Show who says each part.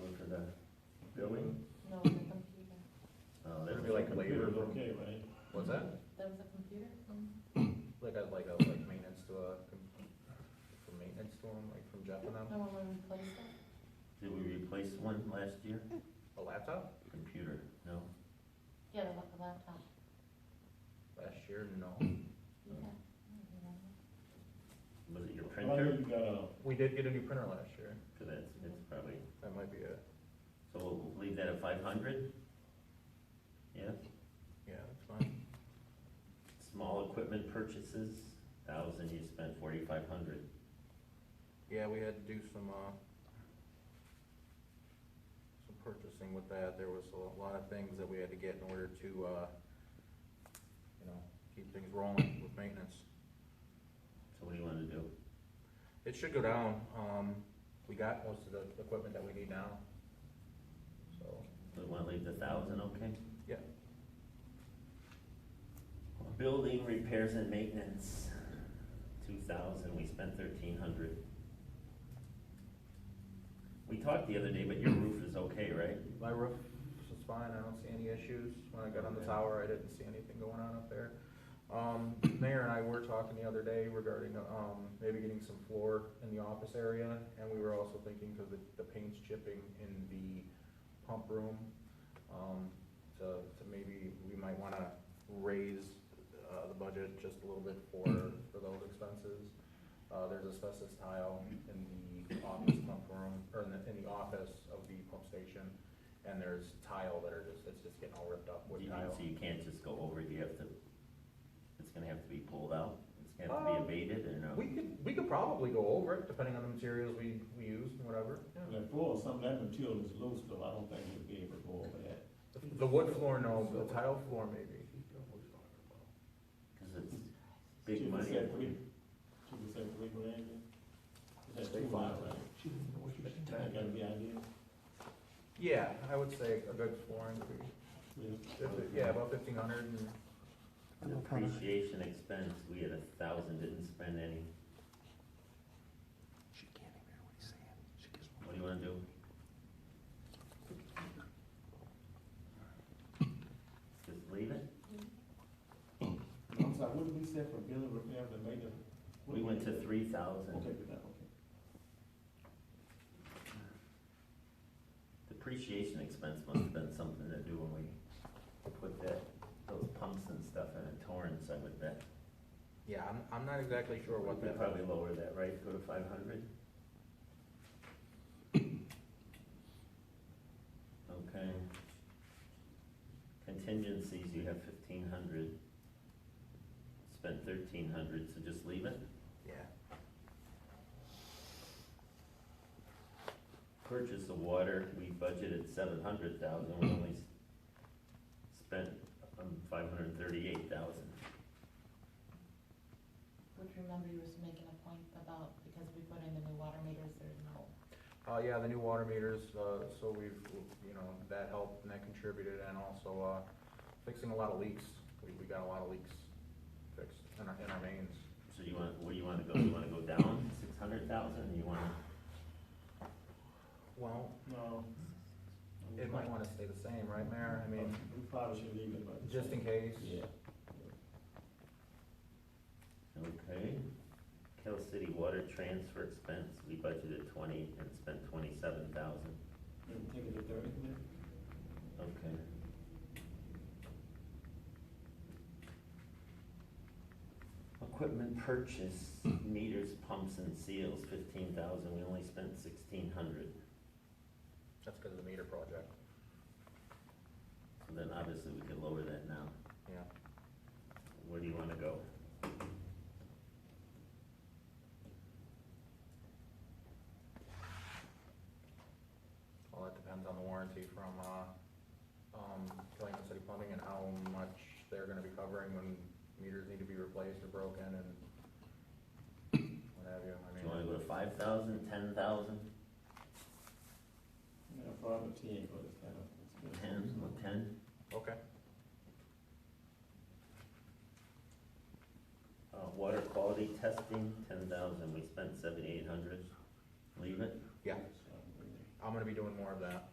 Speaker 1: Uh,
Speaker 2: What's that?
Speaker 3: That was a computer? Mm-hmm.
Speaker 2: Like a, like a, like maintenance to a, com- from maintenance to them, like from Jeff and them,
Speaker 3: No one would replace it?
Speaker 1: Did we replace one last year?
Speaker 2: a laptop?
Speaker 1: Computer, no?
Speaker 3: Yeah, the lap- the laptop.
Speaker 2: Last year, no.
Speaker 3: Yeah. I
Speaker 1: Was it your
Speaker 4: I know
Speaker 1: printer?
Speaker 4: you got a,
Speaker 2: We did get a new printer last year,
Speaker 1: Cause that's, it's probably,
Speaker 2: that might be it,
Speaker 1: so we'll leave that at five hundred? Yeah,
Speaker 2: yeah, that's fine.
Speaker 1: small equipment purchases, thousand, you spent forty-five hundred.
Speaker 2: Yeah, we had to do some, uh, some purchasing with that, there was a lot of things that we had to get in order to, uh, you know, keep things rolling with maintenance.
Speaker 1: So what do you wanna do?
Speaker 2: It should go down, um, we got most of the equipment that we need now, so,
Speaker 1: Do we wanna leave the thousand, okay?
Speaker 2: yeah.
Speaker 1: Building repairs and maintenance, two thousand, we spent thirteen hundred. We talked the other day, but your roof is okay, right?
Speaker 2: My roof is fine, I don't see any issues. When I got on the tower, I didn't see anything going on up there. Um, Mayor and I were talking the other day regarding, um, maybe getting some floor in the office area, and we were also thinking, cause the, the paint's chipping in the pump room, um, to, to maybe, we might wanna raise, uh, the budget just a little bit for, for those expenses. Uh, there's asbestos tile in the office pump room, or in the, in the office of the pump station, and there's tile that are just, it's just getting all ripped up
Speaker 1: You can-
Speaker 2: with tile.
Speaker 1: So you can't just go over, you have to, it's gonna have to be pulled out, it's gonna have to be
Speaker 2: Um,
Speaker 1: abated or no?
Speaker 2: We could, we could probably go over it, depending on the materials we, we use and whatever.
Speaker 4: the floor, some of that material is loose, though, I don't think you'd be able to go over that.
Speaker 2: The- The wood floor, no, but the tile floor maybe.
Speaker 1: Cause it's big
Speaker 4: Chief, you
Speaker 1: money.
Speaker 4: said three- Chief, you said three grand? That's too high, right? That gotta be ideal.
Speaker 2: Yeah, I would say a good floor increase.
Speaker 4: Yeah.
Speaker 2: If- Yeah, about fifteen hundred and,
Speaker 1: Depreciation expense, we had a thousand, didn't spend any,
Speaker 5: She can't even hear what he's saying. She gets
Speaker 1: what do you wanna do? Just leave it?
Speaker 4: I'm sorry, what did we say for building repairs and maintenance? What
Speaker 1: We
Speaker 4: did
Speaker 1: went to
Speaker 4: say?
Speaker 1: three thousand.
Speaker 4: Okay, good, okay.
Speaker 1: Depreciation expense must have been something to do when we put that, those pumps and stuff in a Torrance, I would bet.
Speaker 2: yeah, I'm, I'm not exactly sure what
Speaker 1: We
Speaker 2: that.
Speaker 1: probably lower that, right, go to five hundred? Okay. Contingencies, you have fifteen hundred. Spent thirteen hundred, so just leave it.
Speaker 2: Yeah,
Speaker 1: Purchase of water, we budgeted seven hundred thousand, we only s- spent um, five hundred thirty-eight thousand.
Speaker 3: Would remember you was making a point about, because we put in the new water meters, there's no,
Speaker 2: uh, yeah, the new water meters, uh, so we've, you know, that helped and that contributed, and also, uh, fixing a lot of leaks. We, we got a lot of leaks fixed in our, in our mains.
Speaker 1: So you want, where do you wanna go, you wanna go down six hundred thousand, you wanna,
Speaker 2: Well,
Speaker 4: No.
Speaker 2: it might wanna stay the same, right, Mayor? I mean,
Speaker 4: We probably should leave it, but.
Speaker 2: just in case.
Speaker 4: Yeah.
Speaker 1: okay. Kell City water transfer expense, we budgeted twenty and spent twenty-seven thousand,
Speaker 4: Maybe take it to thirty, yeah.
Speaker 1: okay. Equipment purchase, meters, pumps and seals, fifteen thousand, we only spent sixteen hundred.
Speaker 2: That's because of the meter project,
Speaker 1: So then obviously we could lower that now.
Speaker 2: yeah.
Speaker 1: Where do you wanna go?
Speaker 2: Well, that depends on the warranty from, uh, um, Killington City Plumbing and how much they're gonna be covering when meters need to be replaced or broken and what have you, I
Speaker 1: Do you wanna
Speaker 2: mean.
Speaker 1: go to five thousand, ten thousand,
Speaker 4: Yeah, probably ten, but it's kind of. it's good.
Speaker 1: ten, ten?
Speaker 2: Okay,
Speaker 1: Uh, water quality testing, ten thousand, we spent seventy-eight hundred, leave it,
Speaker 2: yeah, I'm gonna be doing more of that.